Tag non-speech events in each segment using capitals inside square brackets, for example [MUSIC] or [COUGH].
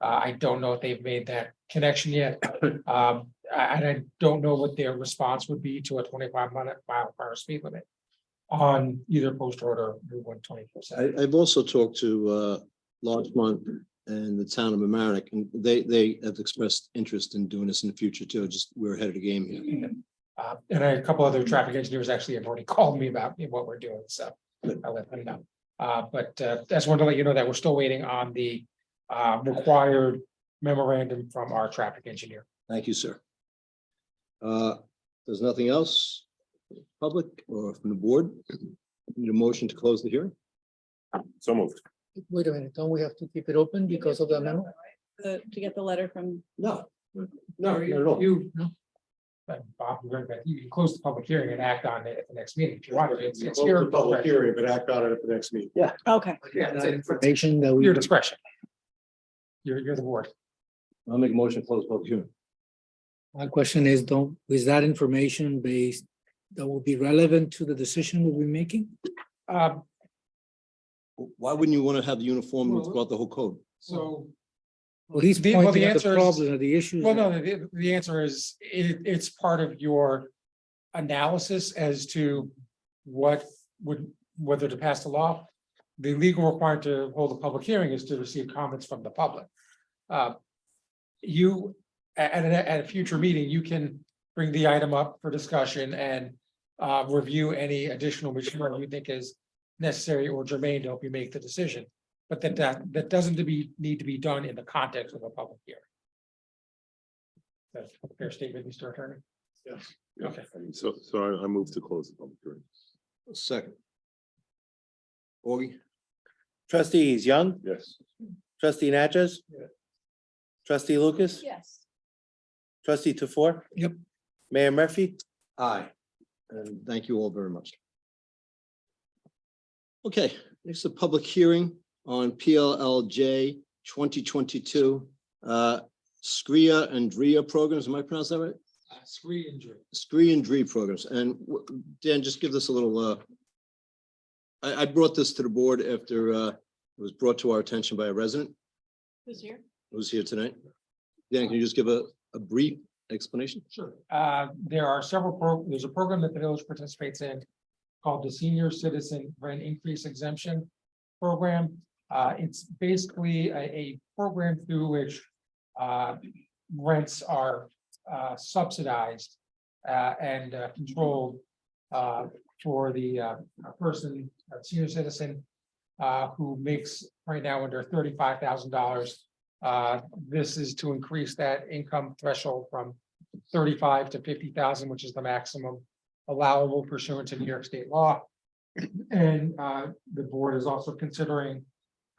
Uh, I don't know if they've made that connection yet. Um, I- and I don't know what their response would be to a twenty-five minute mile per hour speed limit on either post road or Route one twenty-four I, seven. I've also talked to, uh, Larchmont and the town of Amerenik, and they, they have expressed interest in doing this in the future too, just we're ahead of the game here. Uh, and a couple other traffic engineers actually have already [LAUGHS] called me about what we're doing, so I let them know. Uh, but, uh, just wanted to let you know that we're still waiting on the, uh, required memorandum from our traffic engineer. Thank you, sir. Uh, There's nothing else, public or from the board? Need a motion to close the hearing? So moved. Wait a minute, don't we have to keep it open because of the memo? The, to get the letter from, No. You. But Bob, you're right, but you can close the public hearing and act on it at the next meeting if you want. It's- it's your- Public hearing, but act on it at the next meeting. okay. Yeah, it's- it's- it's Information that we, Your discretion. You're, you're the board. I'll make a motion to close public hearing. my question is, don't, is that information based that will be relevant to the decision we'll be making? Um, Why wouldn't you want to have the uniform throughout the whole code? so, Well, he's The- well, the pointing out answer the is- problem, the issues. well, no, that- the, the answer is, it, it's part of your analysis as to what would, whether to pass the law. The legal requirement to hold a public hearing is to receive comments from the public. Uh, You, a- at, a- at a future meeting, you can bring the item up for discussion and uh, review any additional material you think is necessary or germane to help you make the decision. But that, that, that doesn't to be, need to be done in the context of a public hearing. That's a fair statement, Mr. Attorney. Okay. So, so I, I moved to close the public hearing. Second. Augie? Trustees Young, Yes. trustee Natchez? Trustee Lucas? Yes. Trustee Tofor? Yep. Mayor Murphy? Aye. And thank you all very much. Okay, next a public hearing on PLLJ twenty twenty-two. uh, Scria and Dria programs, am I pronouncing that right? Screen injury. Scree and Dree programs, and w- Dan, just give this a little, uh. I, I brought this to the board after, uh, it was brought to our attention by a resident Who's here? who's here tonight. Dan, can you just give a, a brief explanation? Sure. Uh, there are several, pro- there's a program that the village participates in called the Senior Citizen Rent Increase Exemption Program. Uh, it's basically a, a program through which uh, rents are uh, subsidized uh, and uh, controlled uh, for the uh, a person, a senior citizen uh, who makes right now under thirty-five thousand dollars. Uh, This is to increase that income threshold from thirty-five to fifty thousand, which is the maximum allowable pursuant to New York state law. And uh, the board is also considering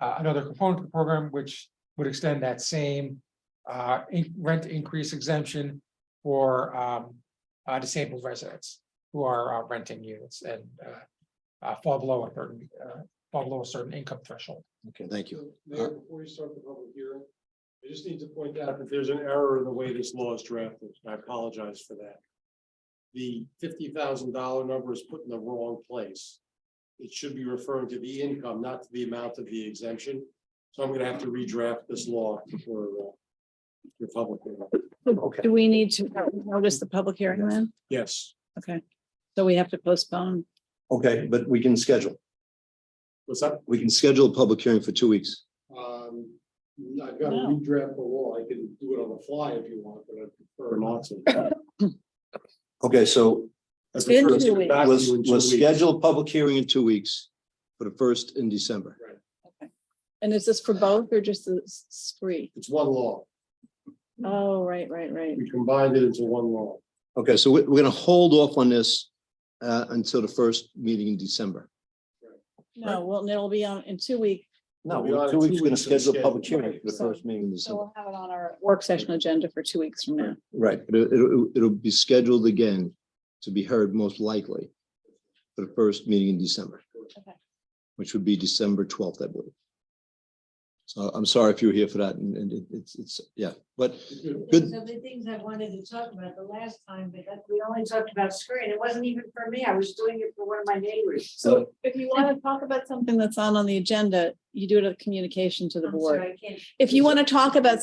uh, another component of the program, which would extend that same uh, in- rent increase exemption for um, uh, disabled residents who are uh, renting units and uh, uh, fall below a certain, uh, fall below a certain income threshold. Okay, thank you. Mayor, before you start the public hearing, I just need to point out that there's an error in the way this law is drafted. and I apologize for that. The fifty thousand dollar number is put in the wrong place. It should be referring to the income, not to the amount of the exemption. So I'm gonna have to redraft this law for uh, your public hearing. Okay. Do we need to notice the public hearing then? Yes, Okay, so we have to postpone. Okay, but we can schedule. what's up? We can schedule a public hearing for two weeks. Um, I've got No. redraft the law. I can do it on the fly if you want, but I prefer not to. Okay, so I been prefer to two get weeks. back to let's, you in two let's weeks. schedule a public hearing in two weeks for the first in December. And is this for both or just the s- s- three? It's one law. Oh, right, right, right. We combined it into one law. Okay, so we're, we're gonna hold off on this uh, until the first meeting in December. No, well, and it'll be on in two weeks, No, We'll be on we're two in two weeks, we're gonna weeks for the schedule a public schedule. hearing for the So- first meeting in so December. we'll have it on our work session agenda for two weeks from now. Right, but it, it'll, it'll be scheduled again to be heard most likely for the first meeting in December. Okay. Which would be December twelfth, I believe. So I'm sorry if you were here for that and, and it- it's, it's, yeah, but good. Of the things I wanted to talk about the last time, but that- we only talked about screen. It wasn't even for me. I was doing it for one of my neighbors. So If you want to talk about something that's not on the agenda, you do it a communication to the I'm sorry, board. I can't If you want to talk about